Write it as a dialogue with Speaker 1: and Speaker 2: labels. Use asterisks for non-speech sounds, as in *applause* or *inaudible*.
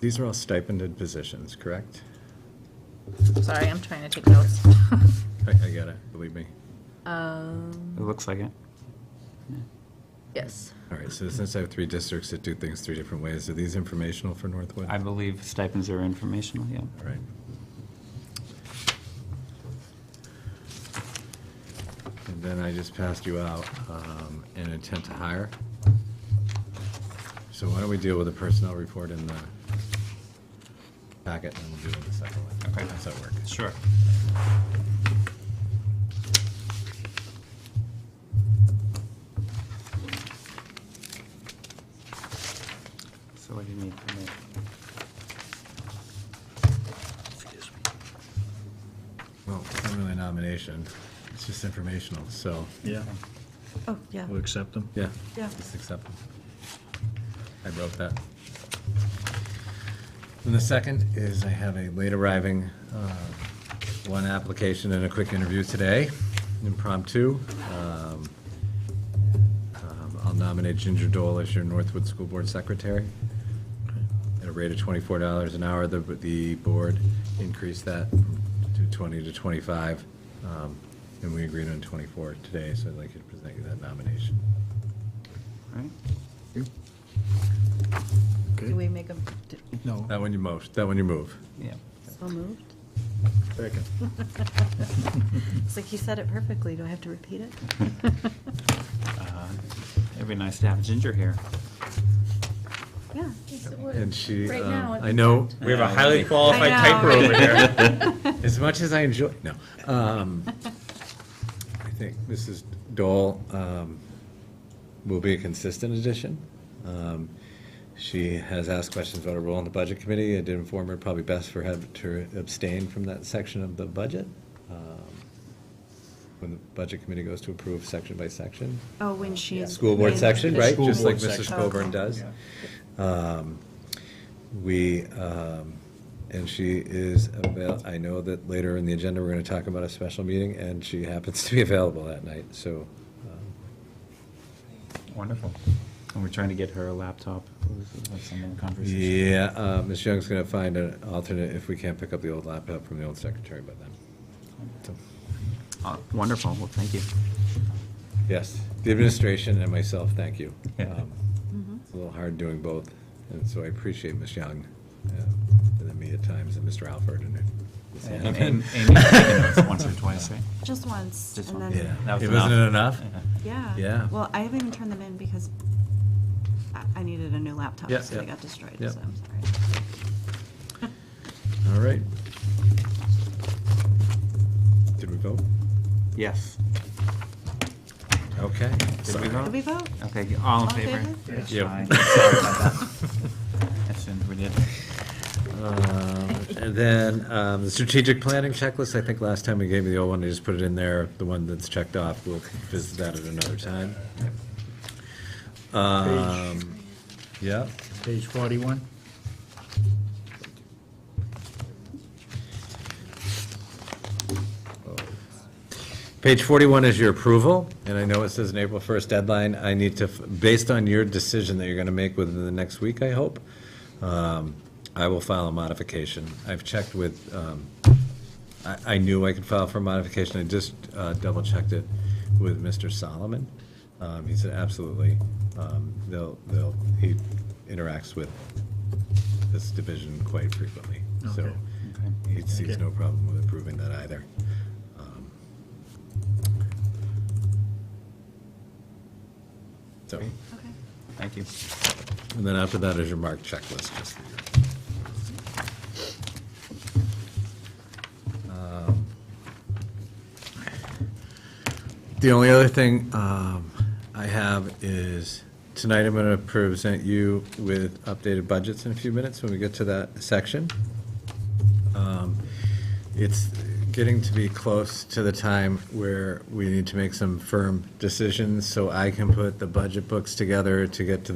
Speaker 1: These are all stipended positions, correct?
Speaker 2: Sorry, I'm trying to take notes. *laughs*
Speaker 1: I, I got it, believe me.
Speaker 2: Um,
Speaker 3: It looks like it.
Speaker 2: Yes.
Speaker 1: All right, so since I have three districts that do things three different ways, are these informational for Northwood?
Speaker 3: I believe stipends are informational, yeah.
Speaker 1: All right. And then I just passed you out um, an intent to hire. So why don't we deal with the personnel report in the packet, and we'll deal with the second one.
Speaker 3: Okay.
Speaker 1: How's that work?
Speaker 3: Sure. So what do you need from me?
Speaker 1: Well, it's not really a nomination, it's just informational, so,
Speaker 4: Yeah,
Speaker 5: Oh, yeah,
Speaker 4: we'll accept them.
Speaker 1: yeah,
Speaker 5: yeah.
Speaker 1: just accept them. I wrote that. And the second is I have a late arriving, uh, one application and a quick interview today, impromptu. Um, um, I'll nominate Ginger Dole as your Northwood School Board Secretary. At a rate of twenty-four dollars an hour, the, the board increased that to twenty to twenty-five. um, And we agreed on twenty-four today, so I'd like you to present you that nomination.
Speaker 3: All right.
Speaker 5: Do we make a,
Speaker 4: No.
Speaker 1: That one you most, that one you move.
Speaker 3: Yeah.
Speaker 5: so moved?
Speaker 4: Second.
Speaker 5: It's like you said it perfectly, do I have to repeat it?
Speaker 3: *laughs* Uh, It'd be nice to have Ginger here.
Speaker 5: Yeah.
Speaker 1: And she,
Speaker 2: Right
Speaker 1: um,
Speaker 2: now,
Speaker 1: I know,
Speaker 6: We have
Speaker 3: Yeah,
Speaker 6: a highly
Speaker 3: we-
Speaker 6: qualified
Speaker 5: I know,
Speaker 6: typer over here.
Speaker 2: *laughs*
Speaker 1: as much as I enjoy, no. um, I think Mrs. Dole um, will be a consistent addition. Um, She has asked questions about her role in the Budget Committee. I did inform her probably best for her to abstain from that section of the budget. um, When the Budget Committee goes to approve section by section.
Speaker 5: Oh, when she is.
Speaker 1: School board
Speaker 5: when-
Speaker 1: section, right?
Speaker 4: School
Speaker 1: Just like
Speaker 4: board
Speaker 1: Mrs.
Speaker 4: section.
Speaker 1: Coburn
Speaker 5: Oh,
Speaker 1: does.
Speaker 4: Yeah.
Speaker 1: Um, We, um, and she is avail, I know that later in the agenda, we're gonna talk about a special meeting, and she happens to be *laughs* available that night, so. um,
Speaker 3: *laughs* Wonderful. And we're trying to get her a laptop. That's some of the conversation.
Speaker 1: Yeah, uh, Ms. Young's gonna find an alternate if we can't pick up the old laptop from the old secretary by then. So,
Speaker 3: Oh, Wonderful, well, thank you.
Speaker 1: Yes, the administration and myself, thank you. Um,
Speaker 5: Mhm.
Speaker 1: It's a little hard doing both, and so I appreciate Ms. Young, uh, and then me at times, and Mr. Alford, and. Ms.
Speaker 3: And
Speaker 1: Hanneman.
Speaker 3: Amy- Amy's taken notes once or twice, eh? right?
Speaker 5: Just once,
Speaker 3: Just
Speaker 5: and
Speaker 3: one.
Speaker 5: then,
Speaker 1: Yeah.
Speaker 3: That was
Speaker 1: It wasn't
Speaker 3: enough.
Speaker 1: enough?
Speaker 3: Yeah.
Speaker 5: yeah.
Speaker 1: Yeah.
Speaker 5: Well, I haven't even turned them in because I, I needed a new laptop,
Speaker 1: Yeah,
Speaker 5: so they
Speaker 1: yeah.
Speaker 5: got destroyed,
Speaker 1: Yeah.
Speaker 5: so I'm sorry.
Speaker 1: All right. Did we vote?
Speaker 3: Yes.
Speaker 1: Okay.
Speaker 3: Did we
Speaker 5: Did we
Speaker 3: vote?
Speaker 5: vote?
Speaker 3: Okay, all in
Speaker 5: All in
Speaker 3: favor?
Speaker 5: favor?
Speaker 3: Yes.
Speaker 1: Yeah.
Speaker 3: Aye. Sorry about that. I assumed we did.
Speaker 1: *laughs* Uh, And then, um, the strategic planning checklist, I think last time we gave you the old one, I just put it in there, the one that's checked off, we'll visit that at another time. Um, yeah,
Speaker 4: Page forty-one?
Speaker 1: page forty-one is your approval, and I know it says an April first deadline, I need to, f- based on your decision that you're gonna make within the next week, I hope, um, I will file a modification. I've checked with, um, I, I knew I could file for modification, I just uh, double-checked it with Mr. Solomon. Um, He said, absolutely, Um, they'll, they'll, he interacts with this division quite frequently, so
Speaker 4: Okay.
Speaker 3: Okay.
Speaker 1: he sees
Speaker 4: Okay.
Speaker 1: no problem with approving that either. Um, So,
Speaker 5: Okay.
Speaker 3: Thank you.
Speaker 1: and then after that is your mark checklist, just for your Um, The only other thing um, I have is, tonight I'm going to present you with updated budgets in a few minutes when we get to that section. Um, It's getting to be close to the time where we need to make some firm decisions, so I can put the budget books together to get to